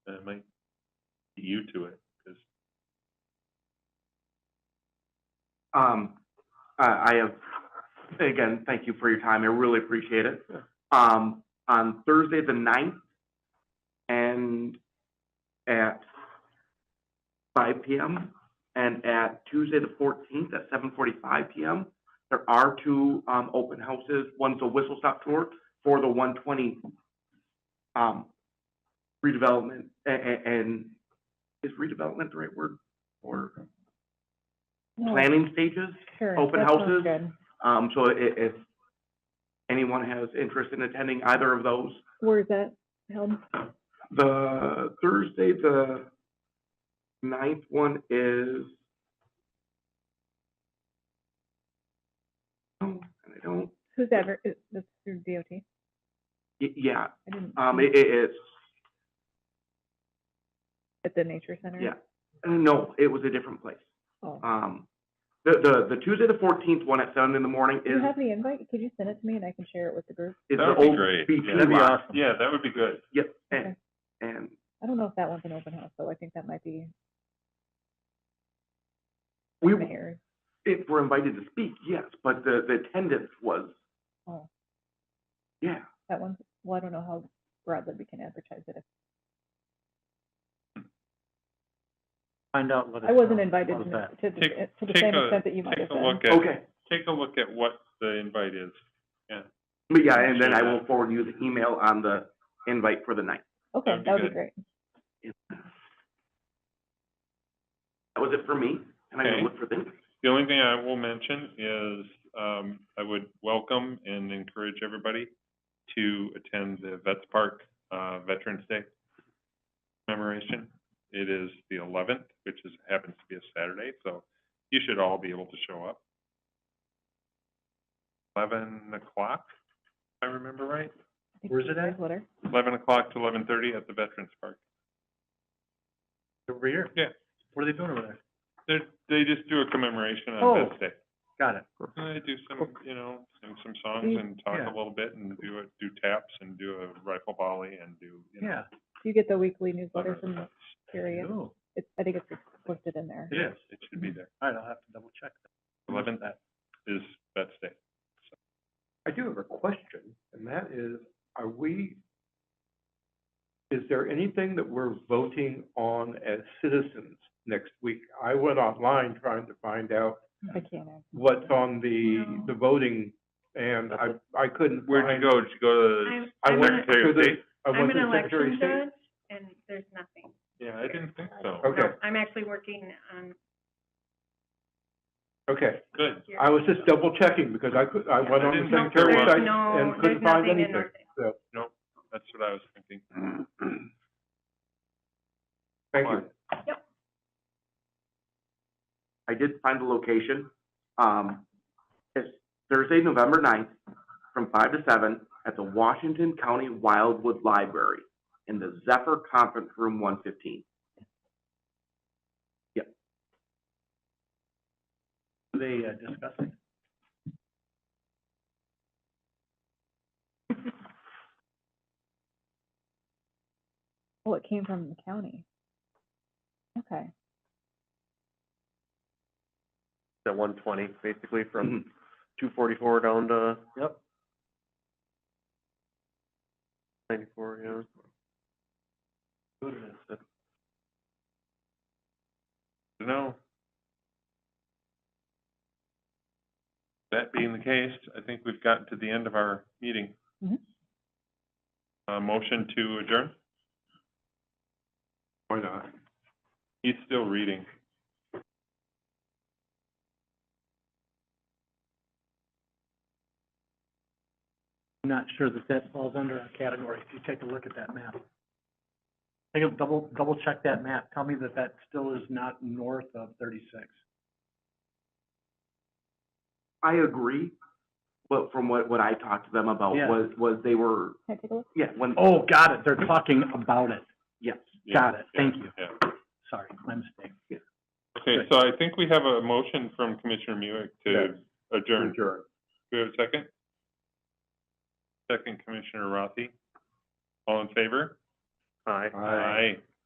you to it, because Um, I, I have, again, thank you for your time. I really appreciate it. Yeah. Um, on Thursday the ninth and at five PM and at Tuesday the fourteenth at seven forty-five PM, there are two, um, open houses. One's a whistle stop tour for the one twenty, um, redevelopment a- a- and is redevelopment the right word? Or No, planning stages? sure, open that sounds houses. good. Um, so i- if anyone has interest in attending either of those, Where is that held? the Thursday, the ninth one is. Oh, and I don't, Who's ever, is, that's through DOT? I y- yeah, didn't. um, see it, it, it's, At the nature center? yeah, no, it was a different place. Oh. Um, the, the, the Tuesday, the fourteenth one at seven in the morning Do you is, have the invite? Could you send it to me and I can share it with the group? is that the would be old great. beach Yeah, that'd be lot. awesome. Yeah, that would be good. Yep, and, Okay. and I don't know if that one's an open house, though. I think that might be we, mayor. if we're invited to speak, yes, but the, the attendance was, Oh, yeah. that one, well, I don't know how broadly we can advertise it. Find out what. I wasn't invited to, that. to, the- Take- to the take same a- extent that you might have Take a been. look at, Okay, take a look at what the invite is. but yeah, and then I will forward you the email on the invite for the night. Okay, That'd be that would be good. great. That was it for me, and I'm Okay. gonna look for things. The only thing I will mention is, um, I would welcome and encourage everybody to attend the Vets Park, uh, Veterans Day commemoration. It is the eleventh, which is, happens to be a Saturday, so you should all be able to show up. Eleven o'clock, if I remember right, Where's it at? Newsletter. eleven o'clock to eleven thirty at the Veterans Park. Over here? Yeah. What are they doing over there? They, they just do a commemoration Oh. on Vets Day. Got it. I do some, you know, sing some songs Mm, and talk yeah. a little bit and do a, do taps and do a rifle volley and do, you know. Yeah. Do you get the weekly newsletter other from stuff. Curious? Oh, It's, I think it's posted in there. It is, it should be there. All right, I'll have to double check. that. Eleven is Vets Day. I do have a question, and that is, are we, is there anything that we're voting on as citizens next week? I went online trying to find out I can't. add. what's on the, the voting, and I, I couldn't Where'd you find. go? Did you go to I'm, I I'm went an, Secretary of to the- State? I I'm went an to Secretary election of State. judge, and there's nothing. Yeah, I didn't think so. No, Okay. I'm actually working on, Okay, Good. here. I was just double checking, because I could, I went on Yeah, the I didn't know Secretary there of was- State there's no, and there's couldn't find nothing in anything, North so, That's what I was thinking. thank you. I did find the location. Um, it's Thursday, November ninth, from five to seven at the Washington County Wildwood Library in the Zephyr Conference Room one fifteen. Are they uh, discussing? Oh, it came from the county. Okay. at one twenty, basically Mhm. from two forty-four down to Yep. ninety-four, yeah. Who it is. No. That being the case, I think we've gotten to the end of our meeting. Mhm. Uh, motion to adjourn? Why not? He's still reading. I'm not sure that that falls under our category. If you take a look at that map. Take a double, double check that map. Tell me that that still is not north of thirty-six. I agree, but from what, what I talked to them about Yeah. was, was they were, Can I take a look? yeah, when, Oh, got it. They're talking about it. yes. Yeah, Got it. yeah, Thank you. Yeah. Sorry, my mistake. Okay, so I think we have a motion from Commissioner Muick to adjourn. Do we have a second? Second, Commissioner Rothi. All in favor? Aye. Aye.